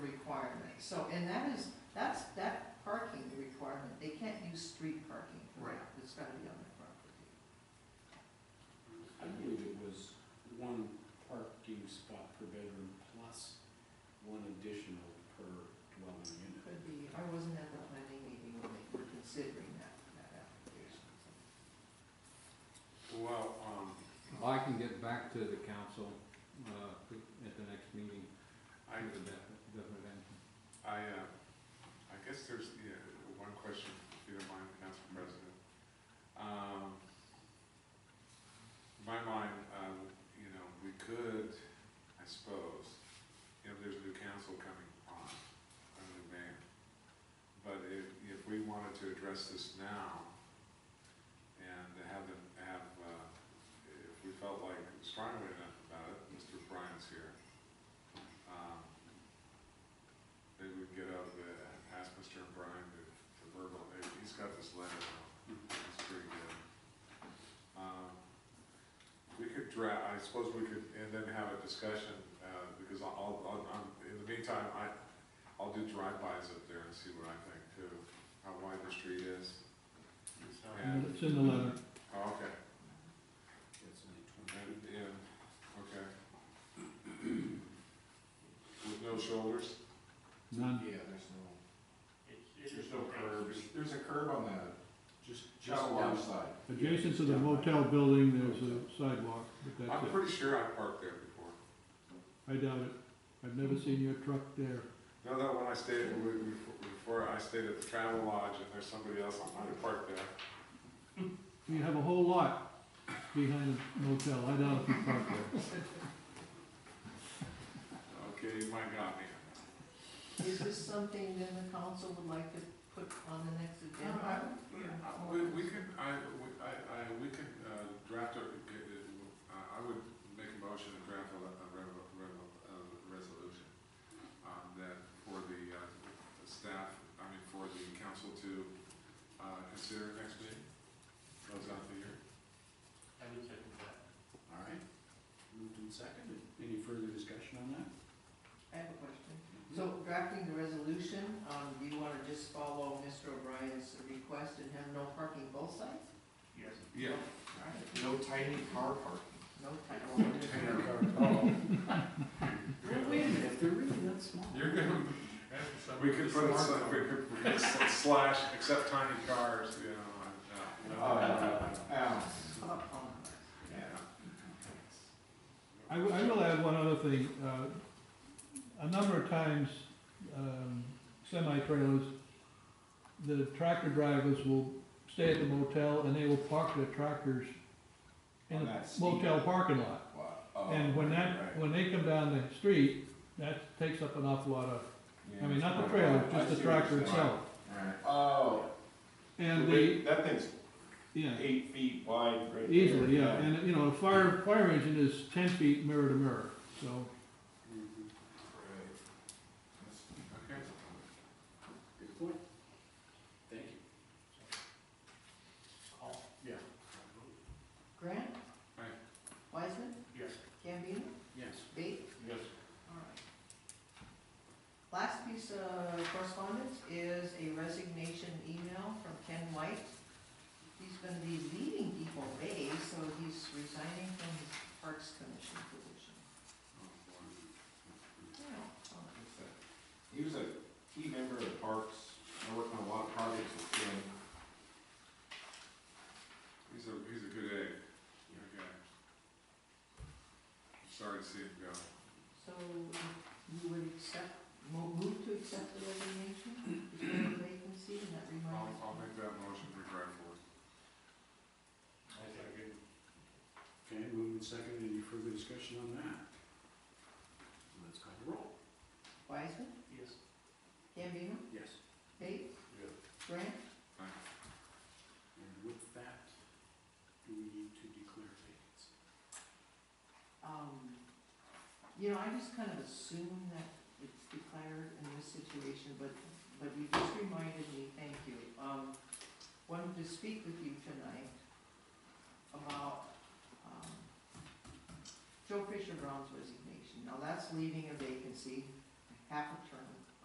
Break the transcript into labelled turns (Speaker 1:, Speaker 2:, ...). Speaker 1: So, and that is, that's, that parking requirement, they can't use street parking for
Speaker 2: Right.
Speaker 1: that, it's gotta be on their property.
Speaker 3: I believe it was one parking spot per bedroom plus one additional per dwelling unit.
Speaker 1: Could be, I wasn't at the planning meeting when they were considering that, that application.
Speaker 2: Well, um,
Speaker 4: I can get back to the council, uh, at the next meeting
Speaker 2: I,
Speaker 4: with a definite, definite answer.
Speaker 2: I, uh, I guess there's, yeah, one question, if you don't mind, Council President. Um, in my mind, um, you know, we could, I suppose, you know, there's a new council coming on, a new mayor. But if, if we wanted to address this now and have them, have, uh, if we felt like strongly enough about it, Mr. Bryan's here. Um, Maybe we can get out of the, ask Mr. Bryan to, to verbal, he's got this letter now, it's pretty good. Um, We could draft, I suppose we could, and then have a discussion, uh, because I'll- I'll, I'll, I'm- in the meantime, I, I'll do drive-bys up there and see what I think too, how wide the street is. And-
Speaker 4: It's in the letter.
Speaker 2: Oh, okay,
Speaker 3: That's only
Speaker 2: and,
Speaker 3: twenty.
Speaker 2: and, okay. With no shoulders?
Speaker 4: None,
Speaker 3: Yeah, there's no,
Speaker 5: There's no curbs. There's a curb on the
Speaker 3: just, just,
Speaker 5: John Lodge side.
Speaker 4: adjacent to the motel building, there's a sidewalk, but
Speaker 2: I'm
Speaker 4: that's it.
Speaker 2: pretty sure I parked there before.
Speaker 4: I doubt it. I've never seen your truck there.
Speaker 2: No, no, when I stayed, we- we- before I stayed at the Travel Lodge and there's somebody else, I might have parked there.
Speaker 4: You have a whole lot behind the motel. I doubt if you park there.
Speaker 2: Okay, you might got me.
Speaker 1: Is this something then the council would like to put on the next agenda?
Speaker 2: Uh, Yeah, We, we could, I, we- I, I, we could uh, draft a, uh, I would make a motion to draft a, le- a revo- revo- a resolution um, that for the, uh, the staff, I mean, for the council to, uh, consider next meeting, close out the year.
Speaker 5: I would second that.
Speaker 3: all right. Moved and seconded. Any further discussion on that?
Speaker 1: I have a question. So drafting the resolution, um, do you wanna just follow Mr. O'Brien's request and have no parking both sides?
Speaker 5: Yes.
Speaker 2: Yeah.
Speaker 5: No tiny car park.
Speaker 1: No title.
Speaker 3: Oh.
Speaker 2: Oh, Yeah.
Speaker 3: Wait a minute, if they're really that small.
Speaker 2: You're gonna, we could put, a sl- we could, we could sl- slash, except tiny cars, you know, uh,
Speaker 5: Oh,
Speaker 2: I- no, no.
Speaker 1: Well,
Speaker 2: Yeah.
Speaker 4: I, w- I will add one other thing. Uh, a number of times, um, semi-trailers, the tractor drivers will stay at the motel and they will park their tractors in the motel parking lot.
Speaker 2: Oh,
Speaker 4: And when that, when they come down the street, that takes up an awful lot of, I mean, not the trailer, just the tractor itself.
Speaker 5: Oh.
Speaker 4: And the,
Speaker 5: That thing's
Speaker 4: yeah,
Speaker 5: eight feet wide right
Speaker 4: easily, yeah, and, you know, a fire, fire engine is ten feet mirror to mirror, so.
Speaker 2: Okay.
Speaker 3: Good point. Thank you.
Speaker 5: Call.
Speaker 3: Yeah.
Speaker 1: Grant?
Speaker 2: Aye.
Speaker 1: Wiseman?
Speaker 5: Yes.
Speaker 1: Gambino?
Speaker 3: Yes.
Speaker 1: Bates?
Speaker 5: Yes.
Speaker 1: Alright. Last piece of correspondence is a resignation email from Ken White. He's gonna be leaving Depot Bay, so he's resigning from his Parks Commission position.
Speaker 5: Oh, He was a key member of the parks, I worked on a lot of projects with him.
Speaker 2: He's a, he's a good egg, okay. Sorry to see him go.
Speaker 1: So you would accept, mo- move to accept the resignation, Is there a vacancy, and that
Speaker 2: I'll,
Speaker 1: reminds
Speaker 2: I'll
Speaker 1: me.
Speaker 2: make that motion regretfully.
Speaker 3: Okay, moving second, any further discussion on that? Let's call the roll.
Speaker 1: Wiseman,
Speaker 5: Yes.
Speaker 1: Gambino,
Speaker 3: Yes.
Speaker 1: Bates,
Speaker 2: Yeah.
Speaker 1: Grant,
Speaker 3: And with that, do we need to declare vacancy?
Speaker 1: um, you know, I just kind of assume that it's declared in this situation, but, but you just reminded me, thank you. Um, wanted to speak with you tonight about, um, Joe Fisher Brown's resignation. Now, that's leaving a vacancy, half a term.